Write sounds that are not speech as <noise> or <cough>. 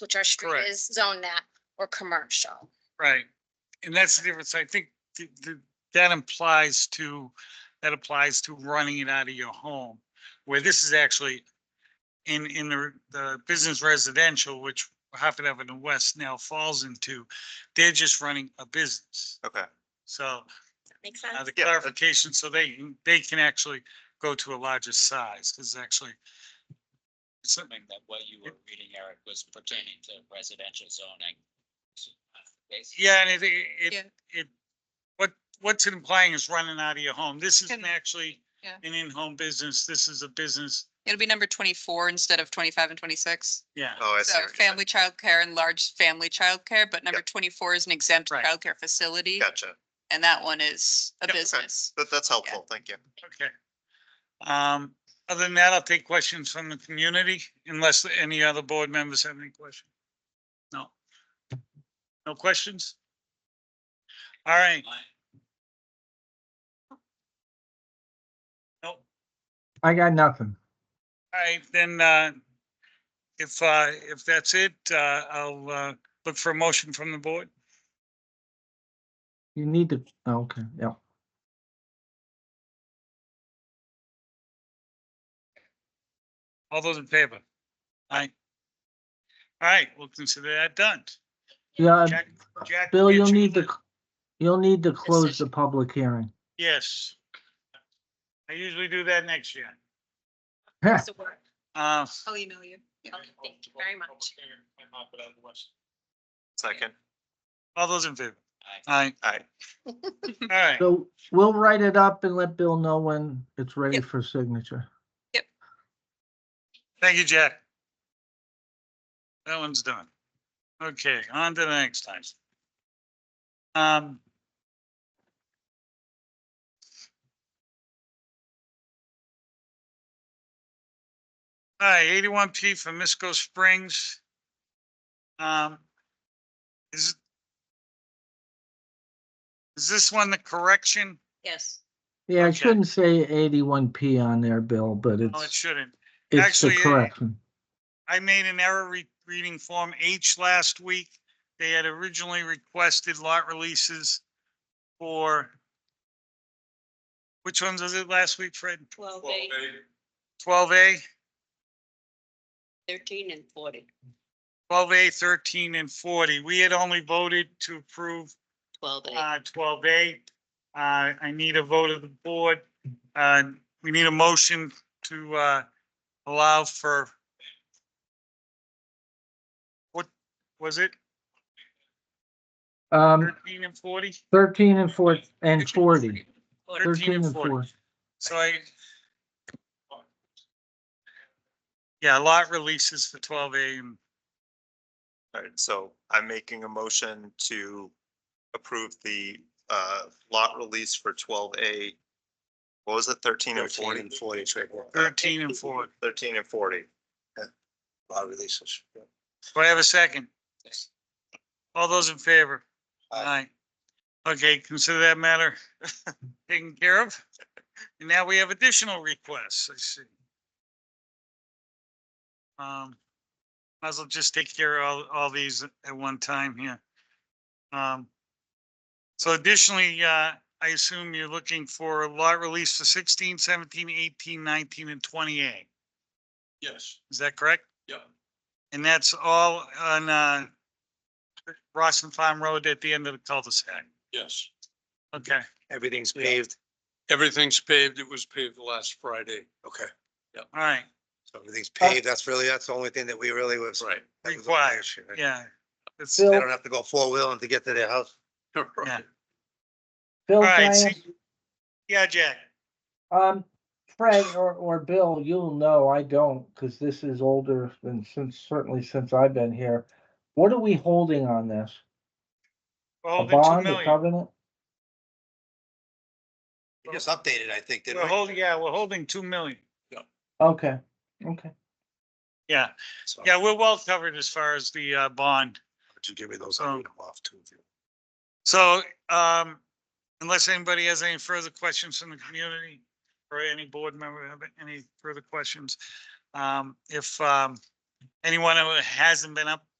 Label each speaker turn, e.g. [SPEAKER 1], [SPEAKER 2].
[SPEAKER 1] which our street
[SPEAKER 2] Correct.
[SPEAKER 1] is zoned that, or commercial.
[SPEAKER 2] Right, and that's the difference, I think th- th- that implies to, that applies to running it out of your home. Where this is actually in, in the, the business residential, which Hartford Avenue West now falls into, they're just running a business.
[SPEAKER 3] Okay,
[SPEAKER 2] So
[SPEAKER 1] Makes
[SPEAKER 2] now the
[SPEAKER 3] Yeah.
[SPEAKER 2] clarification, so they, can- they can actually go to a larger size, because actually. Something,
[SPEAKER 4] assuming that what you were reading, Eric, was pertaining to residential zoning. Basically,
[SPEAKER 2] yeah, and it, it,
[SPEAKER 5] Yeah.
[SPEAKER 2] it, what, what's it implying is running out of your home. This isn't
[SPEAKER 5] Can-
[SPEAKER 2] actually
[SPEAKER 5] yeah.
[SPEAKER 2] an in-home business. This is a business,
[SPEAKER 5] It'll be number twenty-four instead of twenty-five and twenty-six.
[SPEAKER 2] yeah.
[SPEAKER 3] oh, I see.
[SPEAKER 5] So
[SPEAKER 3] what you're saying.
[SPEAKER 5] family childcare and large family childcare, but number twenty-four is an exempt
[SPEAKER 2] Right.
[SPEAKER 5] childcare facility.
[SPEAKER 3] Gotcha,
[SPEAKER 5] And that one is a
[SPEAKER 2] Yeah, okay.
[SPEAKER 5] business.
[SPEAKER 3] that, that's helpful, thank you.
[SPEAKER 2] Okay. Um, other than that, I'll take questions from the community unless any other board members have any questions. No. No questions? All right. Nope.
[SPEAKER 6] I got nothing.
[SPEAKER 2] All right, then, uh, if, uh, if that's it, uh, I'll, uh, look for a motion from the board.
[SPEAKER 6] You need to, oh, okay, yeah.
[SPEAKER 2] All those in favor? Aye. All right, we'll consider that done.
[SPEAKER 6] Yeah,
[SPEAKER 2] Jack- Jack
[SPEAKER 6] Um, Bill,
[SPEAKER 2] will get
[SPEAKER 6] you'll
[SPEAKER 2] you
[SPEAKER 6] need
[SPEAKER 2] the-
[SPEAKER 6] to, you'll need to close the
[SPEAKER 1] Decision.
[SPEAKER 6] public hearing.
[SPEAKER 2] Yes. I usually do that next year.
[SPEAKER 1] It's a work.
[SPEAKER 2] Uh,
[SPEAKER 5] I'll email you.
[SPEAKER 1] Okay, Thank you very much.
[SPEAKER 3] Second,
[SPEAKER 2] all those in favor?
[SPEAKER 4] Aye.
[SPEAKER 2] Aye.
[SPEAKER 3] all right,
[SPEAKER 2] All right,
[SPEAKER 6] So we'll write it up and let Bill know when it's ready
[SPEAKER 5] Yep.
[SPEAKER 6] for signature.
[SPEAKER 2] thank you, Jack. That one's done. Okay, on to the next time. Um. All right, eighty-one P for Misco Springs. Um. Is. Is this one the correction?
[SPEAKER 1] Yes.
[SPEAKER 6] Yeah, I
[SPEAKER 2] Okay.
[SPEAKER 6] shouldn't say eighty-one P on there, Bill, but
[SPEAKER 2] No, it
[SPEAKER 6] it's,
[SPEAKER 2] shouldn't.
[SPEAKER 6] it's the
[SPEAKER 2] actually, it-
[SPEAKER 6] correction.
[SPEAKER 2] I made an error re- reading Form H last week. They had originally requested lot releases for which ones was it last week, Fred?
[SPEAKER 1] Twelve,
[SPEAKER 2] Twelve A,
[SPEAKER 1] thirteen and forty.
[SPEAKER 2] twelve A, thirteen and forty. We had only voted to approve
[SPEAKER 1] Twelve
[SPEAKER 2] uh twelve A. Uh, I need a vote of the board. Uh, we need a motion to uh allow for what was it?
[SPEAKER 6] Um,
[SPEAKER 2] Thirteen and forty?
[SPEAKER 6] thirteen and four, and forty.
[SPEAKER 2] Thirteen and forty. So I. Yeah, lot releases for twelve A and
[SPEAKER 3] all right, so I'm making a motion to approve the, uh, lot release for twelve A. What was it, thirteen and forty?
[SPEAKER 4] 13 and 40, Trey.
[SPEAKER 2] thirteen and four.
[SPEAKER 3] Thirteen and forty,
[SPEAKER 4] Lot releases.
[SPEAKER 2] Do I have a second? All those in favor? Aye. Okay, consider that matter <laughs> taken care of. And now we have additional requests, I see. Um, might as well just take care of all, all these at one time here. Um, so additionally, uh, I assume you're looking for a lot release for 16, 17, 18, 19, and twenty-eight.
[SPEAKER 4] Yes,
[SPEAKER 2] Is that correct?
[SPEAKER 4] Yep.
[SPEAKER 2] And that's all on, uh, Ross and Farm Road at the end of the cul-de-sac.
[SPEAKER 4] yes.
[SPEAKER 2] Okay.
[SPEAKER 3] Everything's
[SPEAKER 4] Yeah. paved. Everything's paved. It was paved last Friday. Okay.
[SPEAKER 2] All right,
[SPEAKER 7] So everything's paved, that's really, that's the only thing that we really was.
[SPEAKER 4] Right. <laughs>
[SPEAKER 7] that was the
[SPEAKER 2] Required,
[SPEAKER 7] issue, right?
[SPEAKER 2] yeah. It's,
[SPEAKER 7] They
[SPEAKER 6] Bill,
[SPEAKER 7] don't have to go four-wheeling to get to their house.
[SPEAKER 2] Yeah.
[SPEAKER 6] Bill,
[SPEAKER 2] All right,
[SPEAKER 6] can I
[SPEAKER 2] so-
[SPEAKER 6] ask-
[SPEAKER 2] yeah, Jack,
[SPEAKER 6] Um, Fred or, or Bill, you'll know, I don't, because this is older than since, certainly since I've been here. What are we holding on this? A
[SPEAKER 2] hold it two
[SPEAKER 6] bond, a
[SPEAKER 2] million.
[SPEAKER 6] covenant?
[SPEAKER 7] They just updated, I think, didn't
[SPEAKER 2] We're
[SPEAKER 7] we?
[SPEAKER 2] holding, yeah, we're holding two million.
[SPEAKER 6] Okay, okay.
[SPEAKER 2] Yeah,
[SPEAKER 7] So,
[SPEAKER 2] yeah, we're well covered as far as the, uh, bond.
[SPEAKER 7] Would you give me those?
[SPEAKER 2] Um,
[SPEAKER 7] I'll read 'em off too, if you-
[SPEAKER 2] So, um, unless anybody has any further questions from the community or any board member have any further questions, um, if, um, anyone who hasn't been up